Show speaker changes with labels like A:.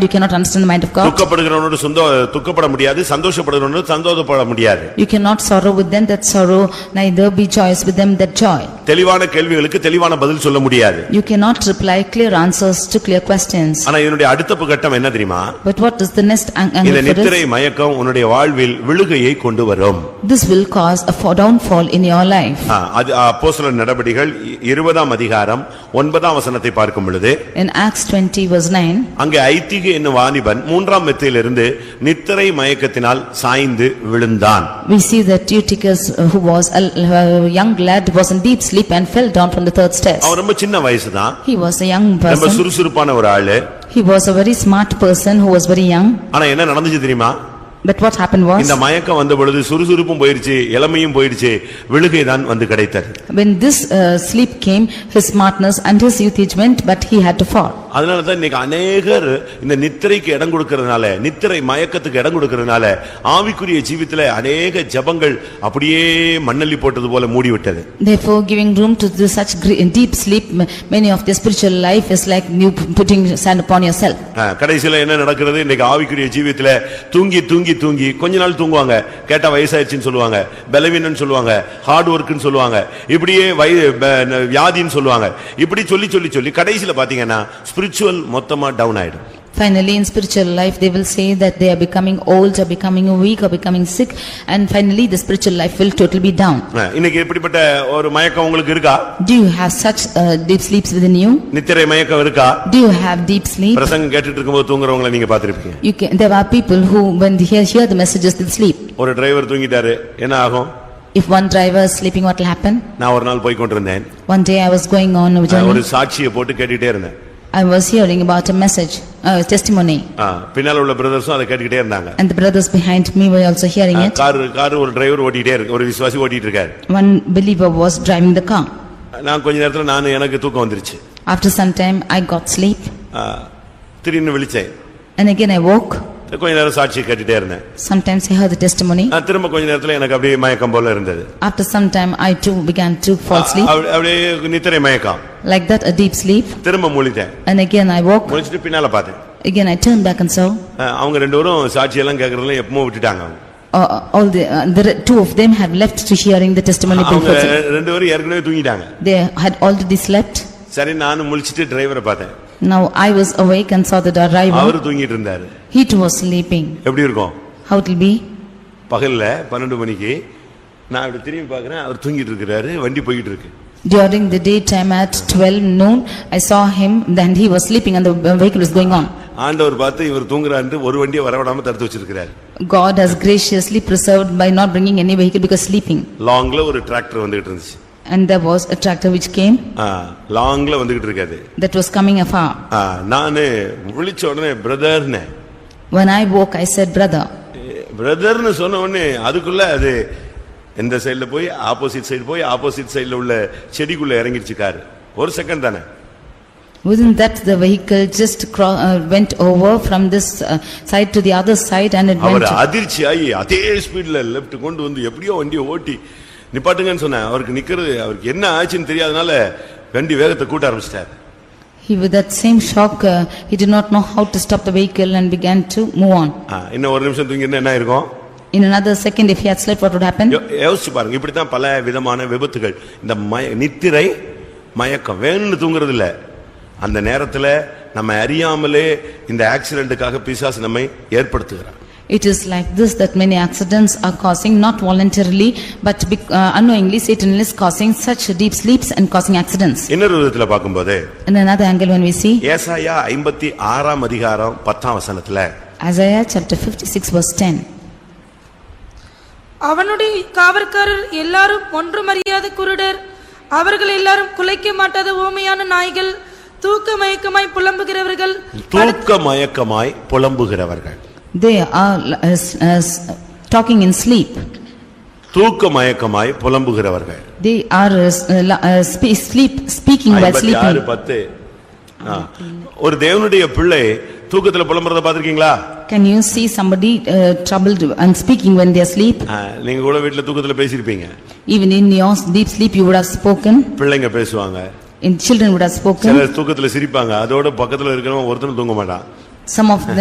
A: You cannot understand the mind of God.
B: துக்கப்படுகிறவனோடு சொந்த துக்கப்பட முடியாது சந்தோஷப்படுகிறவனோடு சந்தோஷப்பட முடியாது
A: You cannot sorrow with them that sorrow, neither be joyous with them that joy.
B: தெளிவான கேள்விகளுக்கு தெளிவான பதில் சொல்ல முடியாது
A: You cannot reply clear answers to clear questions.
B: ஆனா இதனுடைய அடுத்த கட்டம் என்ன தெரியுமா
A: But what is the next ang-
B: இந்த
A: angle for
B: நித்திரை
A: this?
B: மயக்கம் உன்னுடைய வாழ்வில் விழுகையை கொண்டு வரும்
A: This will cause a fall- downfall in your life.
B: ஆ, அது அப்போஸ்தலர் நடபடிகள் இ- இருபதாம் அதிகாரம் ஒன்பதாம் வசனத்தை பார்க்கும் பொழுது
A: In Acts twenty verse nine,
B: அங்கே ஐத்திகு என்னும் வாணிபன் மூன்றாம் மெத்தையிலிருந்து நித்திரை மயக்கத்தினால் சாய்ந்து விழுந்தான்
A: we see that Eutychus, uh, who was a l- a young lad, was in deep sleep and fell down from the third stairs.
B: அவன் ரொம்ப சின்ன வயசுதான்
A: He was a young
B: ரொம்ப
A: person.
B: சுறுசுறுப்பான ஒரு ஆளு
A: He was a very smart person who was very young.
B: ஆனா என்ன நடந்துச்சு தெரியுமா
A: But what happened was,
B: இந்த மயக்கம் வந்த பொழுது சுறுசுறுப்பும் போயிருச்சு இளமையும் போயிருச்சு விழுகைதான் வந்து கிடைத்தது
A: when this uh, sleep came, his smartness and his youth age went, but he had to fall.
B: அதனால தான் இன்னைக்கு அநேகர் இந்த நித்திரைக்கு இடம் கொடுக்கறதுனால நித்திரை மயக்கத்துக்கு இடம் கொடுக்கறதுனால ஆவிக்குரிய ஜீவித்துல அநேக ஜபங்கள் அப்படியே மண்ணள்ளி போட்டது போல மூடி விட்டது
A: Therefore, giving room to this such gre- deep sleep, m- many of their spiritual life is like new p- putting sand upon yourself.
B: அஹ், கடைசியில என்ன நடக்கிறது இன்னைக்கு ஆவிக்குரிய ஜீவித்துல தூங்கி தூங்கி தூங்கி கொஞ்ச நாள் தூங்குவாங்க கேட்டா வயசாயிருச்சுன்னு சொல்லுவாங்க பலவீனம்னு சொல்லுவாங்க ஹார்ட் ஒர்க்குன்னு சொல்லுவாங்க இப்படியே வய ப- ந- வியாதின்னு சொல்லுவாங்க இப்படி சொல்லி சொல்லி சொல்லி கடைசியில பாத்தீங்கன்னா ஸ்பிரிச்சுவல் மொத்தமா டவுன் ஆயிடும்
A: Finally, in spiritual life, they will say that they are becoming old, or becoming weak, or becoming sick, and finally the spiritual life will totally be down.
B: அஹ், இன்னைக்கு இப்படிப்பட்ட ஒரு மயக்கம் உங்களுக்கு இருக்கா
A: Do you have such uh, deep sleeps within you?
B: நித்திரை மயக்கம் இருக்கா
A: Do you have deep sleep?
B: பிரசங்கம் கேட்டுட்டு இருக்கும்போது தூங்குறவங்கள நீங்க பாத்திருப்பீங்க
A: You can, there are people who, when they hear, hear the messages, they sleep.
B: ஒரு டிரைவர் தூங்கிட்டாரு என்ன ஆகும்
A: If one driver is sleeping, what will happen?
B: நான் ஒரு நாள் போய் கொண்டிருந்தேன்
A: One day I was going on a
B: நான் ஒரு
A: journey,
B: சாட்சியை போட்டு கேட்டுட்டே இருந்தேன்
A: I was hearing about a message, a testimony,
B: ஆ, பின்னால உள்ள பிரதர்ஸும் அதை கேட்டுக்கிட்டே இருந்தாங்க
A: and the brothers behind me were also hearing
B: ஆ,
A: it.
B: காரு காரு ஒரு டிரைவர் ஓட்டிட்டே இருக்கு ஒரு விசுவாசி ஓட்டிட்டு இருக்காரு
A: One believer was driving the car.
B: நான் கொஞ்ச நேரத்துல நான் எனக்கு தூக்கம் வந்துருச்சு
A: After some time, I got sleep,
B: ஆ, திடீர்னு விழிச்சேன்
A: and again I woke.
B: கொஞ்ச நேரம் சாட்சியை கேட்டுட்டே இருந்தேன்
A: Sometimes I heard the testimony.
B: ஆ, திரும்ப கொஞ்ச நேரத்துல எனக்கு அப்படியே மயக்கம் போல இருந்தது
A: After some time, I too began to
B: ah,
A: fall asleep.
B: அப்படி- அப்படியே நித்திரை மயக்கம்
A: Like that, a deep sleep.
B: திரும்ப முழித்தேன்
A: And again I woke.
B: முழிச்சிட்டு பின்னால பார்த்தேன்
A: Again I turned back and saw
B: ஆ, அவங்க ரெண்டு பேரும் சாட்சியெல்லாம் கேட்கறதுல எப்பமோ விட்டுட்டாங்க அவங்க
A: uh, all the, uh, the re- two of them have left to hearing the testimony. being
B: அவங்க
A: fulfilled.
B: ரெண்டு பேரும் ஏற்கனவே தூங்கிட்டாங்க
A: They had already slept.
B: சரி நானும் முழிச்சிட்டு டிரைவரை பார்த்தேன்
A: Now I was awake and saw the driver.
B: அவரு தூங்கிட்டு இருந்தாரு
A: He too was sleeping.
B: எப்படி இருக்கும்
A: How it will be?
B: பகல்ல பன்னெண்டு மணிக்கு நான் இப்படி திரும்பி பார்க்கறேன் அவர் தூங்கிட்டு இருக்கிறாரு வண்டி போயிட்டு இருக்கு
A: During the daytime at twelve noon, I saw him, then he was sleeping and the vehicle was going on.
B: ஆண்டவர் பார்த்து இவர் தூங்குறாருன்னு ஒரு வண்டியை வரவிடாம தடுத்து வச்சிருக்கிறாரு
A: God has graciously preserved by not bringing any vehicle because sleeping.
B: லாங்ல ஒரு டிராக்டர் வந்துகிட்டு இருந்துச்சு
A: And there was a tractor which came
B: ஆ, லாங்ல வந்துகிட்டு இருக்காது
A: that was coming afar.
B: ஆ, நானு விழிச்ச உடனே பிரதர்னு
A: When I woke, I said, "Brother."
B: பிரதர்னு சொன்ன உடனே அதுக்குள்ள அது இந்த சைடுல போய் ஆப்போசிட் சைடு போய் ஆப்போசிட் சைடுல உள்ள செடிக்குள்ள இறங்கிருச்சு காரு ஒரு செகண்ட் தானே
A: Within that, the vehicle just cro- uh, went over from this uh, side to the other side and it went.
B: அவர் அதிர்ச்சியாகி அதே ஸ்பீட்ல லெப்ட் கொண்டு வந்து எப்படியோ வண்டியை ஓட்டி நிப்பாட்டுங்கன்னு சொன்னேன் அவருக்கு நிக்கிறது அவருக்கு என்ன ஆச்சுன்னு தெரியாதனால வண்டி வேகத்தை கூட்ட ஆரம்பிச்சிட்டாரு
A: He with that same shock, uh, he did not know how to stop the vehicle and began to move on.
B: ஆ, இன்னும் ஒரு நிமிஷம் தூங்கிருந்தா என்ன இருக்கும்
A: In another second, if he had slept, what would happen?
B: யோ- யோசிச்சு பாருங்க இப்படித்தான் பல விதமான விபத்துகள் இந்த மய நித்திரை மயக்கம் வேணும்னு தூங்குறது இல்ல அந்த நேரத்துல நம்ம அறியாமலே இந்த ஆக்சிடென்ட்டுக்காக பிசாசு நம்மை ஏற்படுத்துகிறான்
A: It is like this that many accidents are causing not voluntarily but bec- uh, unknowingly Satan is causing such deep sleeps and causing accidents.
B: இன்னொரு விதத்துல பார்க்கும்போது
A: In another angle when we see
B: ஏசாயா ஐம்பத்தி ஆறாம் அதிகாரம் பத்தாம் வசனத்துல
A: Isaiah chapter 56 verse 10.
C: அவனுடைய காவற்காரர் எல்லாரும் ஒன்றுமறியாத குருடர் அவர்கள் எல்லாரும் குலைக்க மாட்டாத ஊமையான நாய்கள் தூக்க மயக்கமாய் புலம்புகிறவர்கள்
B: தூக்க மயக்கமாய் புலம்புகிறவர்கள்
A: They are l- uh, as- as talking in sleep.
B: தூக்க மயக்கமாய் புலம்புகிறவர்கள்
A: They are as- uh, la- uh, spe- sleep speaking while
B: ஐம்பத்தி ஆறு
A: sleeping.
B: பத்து ஆ. ஒரு தேவனுடைய பிள்ளை தூக்கத்துல புலம்புறத பாத்திருக்கீங்களா
A: Can you see somebody uh, troubled and speaking when they are asleep?
B: ஆ, நீங்க கூட வீட்டுல தூக்கத்துல பேசியிருப்பீங்க
A: Even in your deep sleep you would have spoken,
B: பிள்ளைங்க பேசுவாங்க
A: in children would have spoken.
B: சிலர் தூக்கத்துல சிரிப்பாங்க அதோட பக்கத்துல இருக்கிறவன் ஒருத்தனும் தூங்க மாட்டான்
A: Some of them